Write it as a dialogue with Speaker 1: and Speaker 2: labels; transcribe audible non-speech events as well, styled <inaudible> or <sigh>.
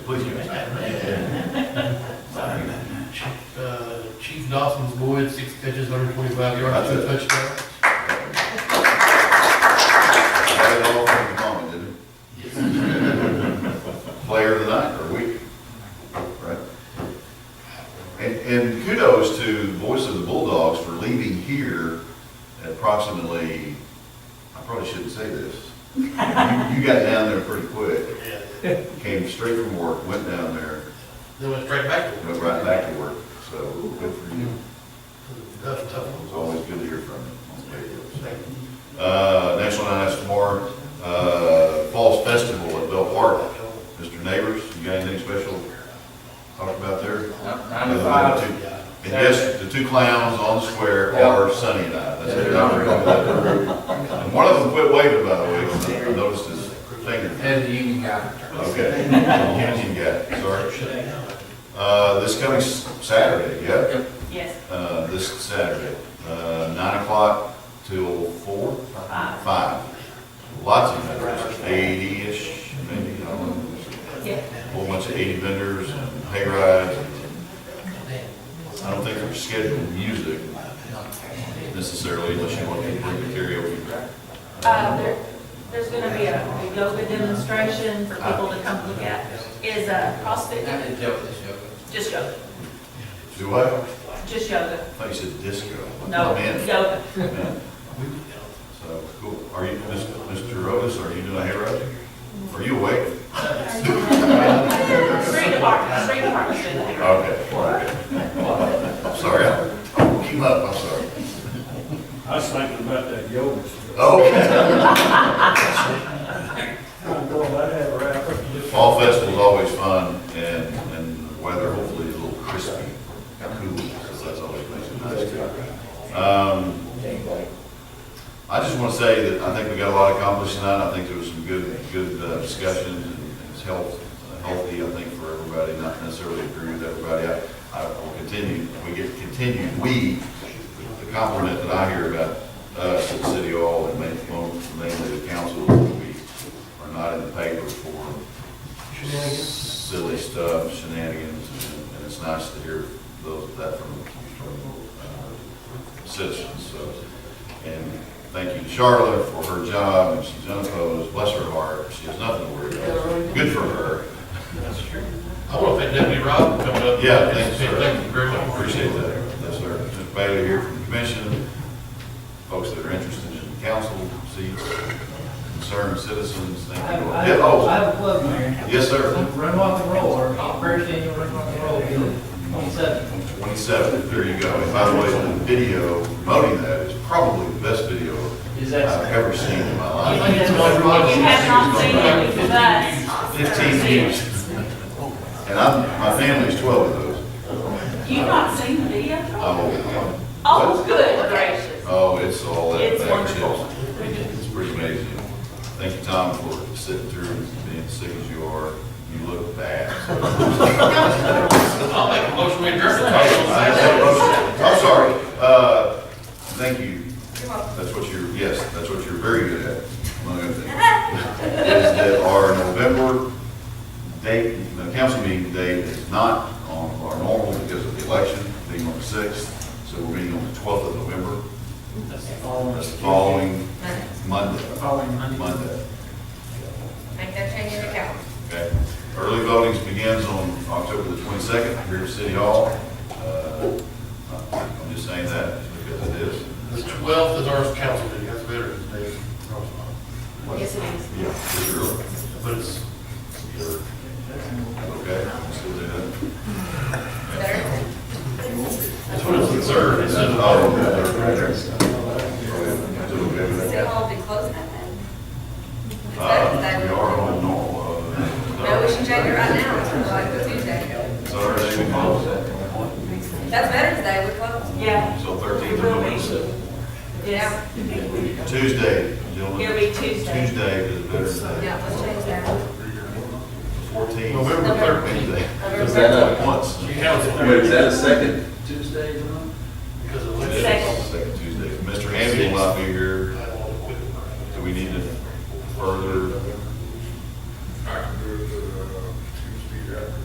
Speaker 1: Please, guys.
Speaker 2: Sorry about that.
Speaker 1: Uh, Chief Dawson's Boyd, six catches, 125 yards, two touchdowns.
Speaker 3: Had it all from the moment, didn't it? <laughs> Player of the night or week, right? And, and kudos to the voice of the Bulldogs for leaving here at approximately, I probably shouldn't say this. You you got down there pretty quick,
Speaker 1: Yeah.
Speaker 3: came straight from work, went down there,
Speaker 1: Then went straight back to
Speaker 3: and
Speaker 1: him.
Speaker 3: went right back to work. So good for you.
Speaker 1: Tough, tough
Speaker 3: It's
Speaker 1: one.
Speaker 3: always good to hear from you on the radio.
Speaker 1: Thank you.
Speaker 3: Uh, next one I asked tomorrow, uh, Falls Festival at Bell Park. Mr. Neighbors, you got anything special to talk about there?
Speaker 2: Nine to five.
Speaker 3: And yes, the two clowns on the square are Sunny and I. That's it. I remember that. And one of them quit waving, by the way, I noticed his finger.
Speaker 2: And the union guy.
Speaker 3: Okay. Kenyon got it, sorry. Uh, this coming S- Saturday, yeah?
Speaker 4: Yes,
Speaker 3: Uh, this Saturday, uh, nine o'clock till four?
Speaker 4: Five.
Speaker 3: Lots of vendors, eighty-ish, maybe, I don't know.
Speaker 4: yeah,
Speaker 3: a whole bunch of 80 vendors and hay rides. I don't think they're scheduled music necessarily unless you want to bring the karaoke back.
Speaker 4: uh, there, there's gonna be a yoga demonstration for people to come look at, is a CrossFit,
Speaker 2: That is joke, that's joke.
Speaker 4: just yoga,
Speaker 3: Do I? I
Speaker 4: just yoga,
Speaker 3: thought you said disco.
Speaker 4: no,
Speaker 3: Oh, Man.
Speaker 4: yoga.
Speaker 3: So, cool. Are you, Mr. Otis, are you doing a hay ride? Are you awake?
Speaker 4: Three departments, three departments in there.
Speaker 3: Okay. all right. I'm sorry, I'll keep up, I'm sorry.
Speaker 5: I was thinking about that yoga stuff.
Speaker 3: Okay.
Speaker 5: I'm going, I'd have her out there just
Speaker 3: Fall festival's always fun and, and the weather hopefully is a little crispy, cool, so that's always nice and nice. Um, I just want to say that I think we got a lot accomplished tonight. I think there was some good, good uh, discussions and it's health, healthy, I think, for everybody, not necessarily agree with everybody. I, I will continue, we get continued, we, the compliment that I hear about us at City Hall and mainly, mainly the council, we are not in the paper for silly stuff, shenanigans, and- and it's nice to hear those, that from, from uh, citizens, so. And thank you to Charlotte for her job, and she's unopposed, bless her heart, she has nothing to worry about, good for her.
Speaker 1: I want to thank Deputy Rob for coming up.
Speaker 3: Yeah, thanks, sir.
Speaker 1: Thank you very
Speaker 3: I
Speaker 1: much.
Speaker 3: Appreciate that, yes, sir. Mr. Bailey here from the commission, folks that are interested in council seats, concerned citizens, thank you.
Speaker 6: I
Speaker 3: Yeah,
Speaker 6: I
Speaker 3: oh,
Speaker 6: have a plug, Mayor.
Speaker 3: Yes, sir,
Speaker 6: Run Rock and Roll, our first annual Run Rock and Roll, Bill, twenty-seven.
Speaker 3: twenty-seven, there you go. And by the way, the video promoting that is probably the best video
Speaker 6: Is
Speaker 3: I've
Speaker 6: that?
Speaker 3: ever seen in my life.
Speaker 1: think it's my problem.
Speaker 4: If you have not seen it, it's us.
Speaker 3: Fifteen views. And I'm, my family's twelve of those.
Speaker 4: You've not seen the video?
Speaker 3: Oh,
Speaker 4: Oh, good gracious.
Speaker 3: Oh, it's all that.
Speaker 4: It's
Speaker 3: that
Speaker 4: wonderful.
Speaker 3: shit. It's pretty amazing. Thank you, Tom, for sitting through and being sick as you are. You look bad.
Speaker 1: I'll make a motion to
Speaker 3: I have a motion. I'm sorry, uh, thank you. That's what you're, yes, that's what you're very good at, among other things. Is that our November date, the council meeting date is not on our normal because of the election, being on the sixth, so we're meeting on the twelfth of November. That's the following Monday. Following Monday. Monday,
Speaker 7: Make that change in the calendar.
Speaker 3: okay? Early voting begins on October the twenty-second here at City Hall. Uh, I'm just saying that because it is.
Speaker 1: The twelfth is our council meeting, that's Veterans Day.
Speaker 4: Yes, it is.
Speaker 3: Yeah, it's early.
Speaker 1: But it's,
Speaker 3: Okay, let's do that.
Speaker 7: Better?
Speaker 1: that's what it's observed, it's in
Speaker 3: Oh, okay, okay. Is it okay with
Speaker 7: City
Speaker 3: that?
Speaker 7: Hall be closed that day? Is that- is
Speaker 3: Uh,
Speaker 7: that-
Speaker 3: we are on normal,
Speaker 7: No, we
Speaker 3: uh,
Speaker 7: should change it right now, to like Tuesday.
Speaker 3: Saturday, we close,
Speaker 7: That's Veterans Day, we close.
Speaker 4: Yeah,
Speaker 3: so thirteenth of November.
Speaker 4: yes,
Speaker 3: Tuesday,
Speaker 4: it'll
Speaker 3: gentlemen,
Speaker 4: be Tuesday.
Speaker 3: Tuesday is Veterans Day,
Speaker 7: Yeah, let's change that.
Speaker 3: fourteenth.
Speaker 1: November thirteenth.
Speaker 3: Wednesday.
Speaker 7: November
Speaker 3: Once.
Speaker 1: You have it.
Speaker 8: Wait, is that a second?